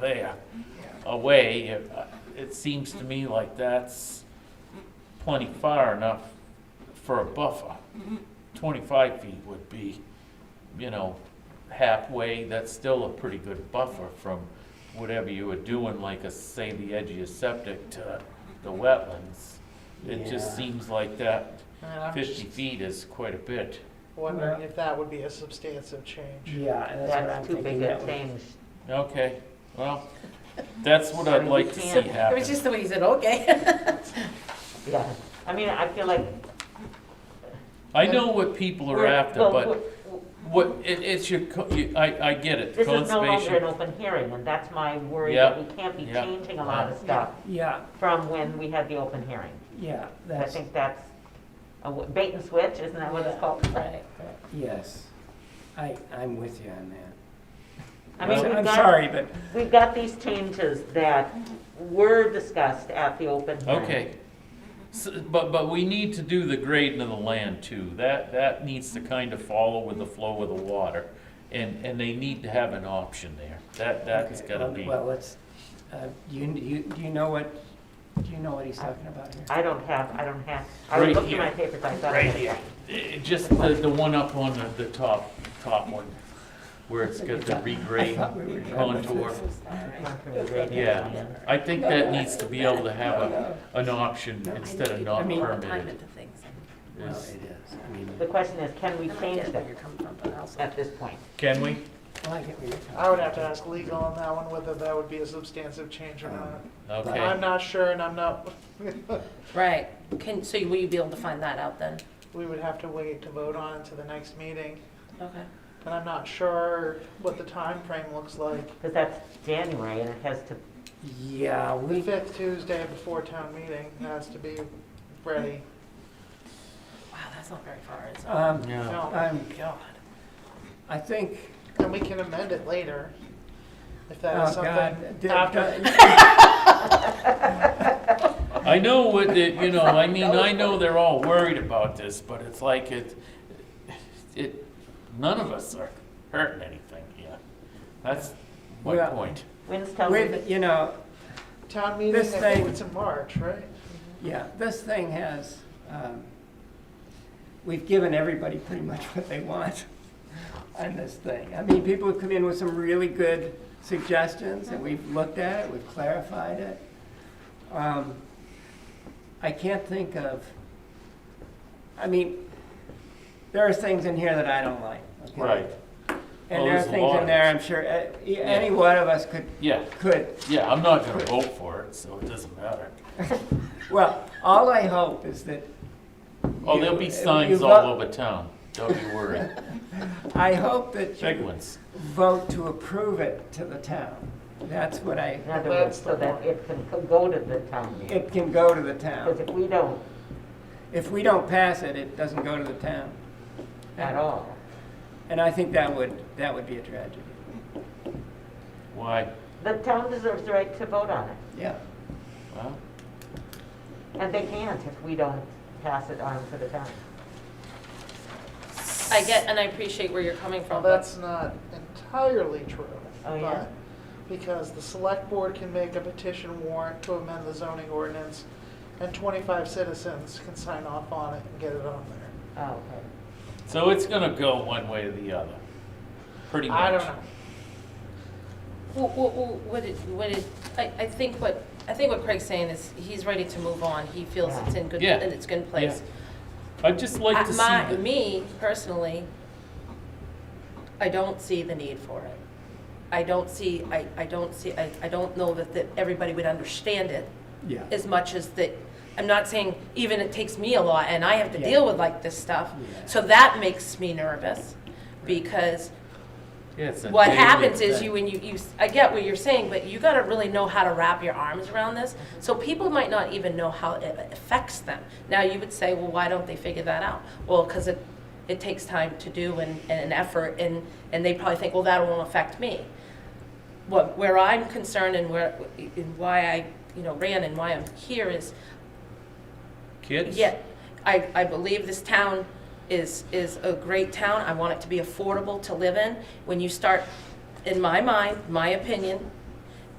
there, away, it, uh, it seems to me like that's plenty far enough for a buffer. Twenty-five feet would be, you know, halfway, that's still a pretty good buffer from whatever you were doing, like a, say, the edge of your septic to the wetlands. It Yeah. just seems like that And I'm fifty just feet is quite a bit. wondering Yeah. if that would be a substantive change. Yeah, and that's what I'm That's too thinking. big a That would- change. Okay, well, that's what I I'd mean, like we to see can't- It was happen. just the way you said, okay. Yeah, I mean, I feel like. I know what people are we're- after, well, but we're- What, it, it's your, co- you- I, I get it, This is no longer an conservation, open hearing, and that's my worry that we Yeah, can't be yeah, changing a lot of yeah. stuff Yeah, from when we had the open hearing. yeah, I that's, think that's a w- bait and switch, isn't that what it's called? Right. yes. I, I'm with you on that. I mean, So- we've I'm got, sorry, but, we've got these changes that were discussed at the open hearing. okay. S but, but we need to do the grading of the land too, that, that needs to kind of follow with the flow of the water. And, and they need to have an option there, that, that's okay, gotta well- be, Well, let's, uh, you, you, do you know what, do you know what he's talking about here? I don't have, I don't have, I was Right looking here. at my papers, I thought. I right had here. that. Eh, Just the, the one up on the, the top, top one, where it's got the I thought regrade we were done with contour. this. Gone through the grading. Yeah, I think that needs to be able to have a, an option instead of I not mean- Time permitted. into things. Well, it is- is, I mean, The question is, can we And I change get where that you're coming from, but also. at this point? Can we? well, I get where you're coming I would have to ask legal on that one whether that would be a substantive change or not. Okay. I'm not sure and I'm not, Right, can, so will you be able to find that out then? we would have to wait to vote on it to the next meeting. Okay. And I'm not sure what the time frame looks like. Because that's January and it has to, from. Yeah, The we, fifth Tuesday before town meeting has to be ready. Wow, that's not very far, is it? um, Yeah. No, I'm, God. I think, and we can amend it later if that oh, is God. something did- uh, after. I know what the, you know, I mean, I know they're all worried about this, but it's like it, it, none of us are hurting anything here. That's my Well- point. when's town meeting? With, you know, Town meeting, I This think thing- it's in March, right? Yeah, this thing has, um, we've given everybody pretty much what they want on this thing. I mean, people have come in with some really good suggestions, and we've looked at it, we've clarified it. Um, I can't think of, I mean, there are things in here that I don't like. okay? Oh, And there are there's a lot things in of there, it. I'm sure, eh, e- any one of us could, Yeah, could yeah, I'm not gonna vote for it, so it doesn't matter. Well, all I hope is that. Oh, you- there'll you be signs vo- all over town, don't you worry. I hope that Big you ones. vote to approve it to the town. That's what I, In other That's words, so the that one. it can co- go to the town meeting. it can go to the Because town. if we don't If we don't pass it, it doesn't go to the town. at all, And I think that would, that would be a tragedy. Why? the town deserves the right to vote on it. Yeah. Well, And they can't if we don't pass it on to the town. I get, and I appreciate where you're coming Well, from, but, that's not entirely true. Oh, yeah? but- Because the select board can make a petition warrant to amend the zoning ordinance, and 25 citizens can sign off on it and get it on there. Oh, okay. So it's gonna go one way or the other, pretty much. I don't know. Well, well, well, what it, what it, I, I think what, I think what Craig's saying is, he's ready to move on, he feels it's in good, Yeah. that it's good place. I'd just like At to see my, the- me personally, I don't see the need for it. I don't see, I, I don't see, I, I don't know that, that everybody would understand it Yeah. as much as that, I'm not saying even it takes me a lot and I have to Yeah. deal with like this stuff. Yeah. So that makes me nervous because Yeah, it's a what daily happens is thing. you, when you, you, I get what you're saying, but you gotta really know how to wrap your arms around this. So people might not even know how it affects them. Now, you would say, well, why don't they figure that out? Well, because it, it takes time to do and, and an effort, and, and they probably think, well, that won't affect me. What, where I'm concerned and where, and why I, you know, ran and why I'm here is, Kids? yeah, I, I believe this town is, is a great town. I want it to be affordable to live in. When you start, in my mind, my opinion,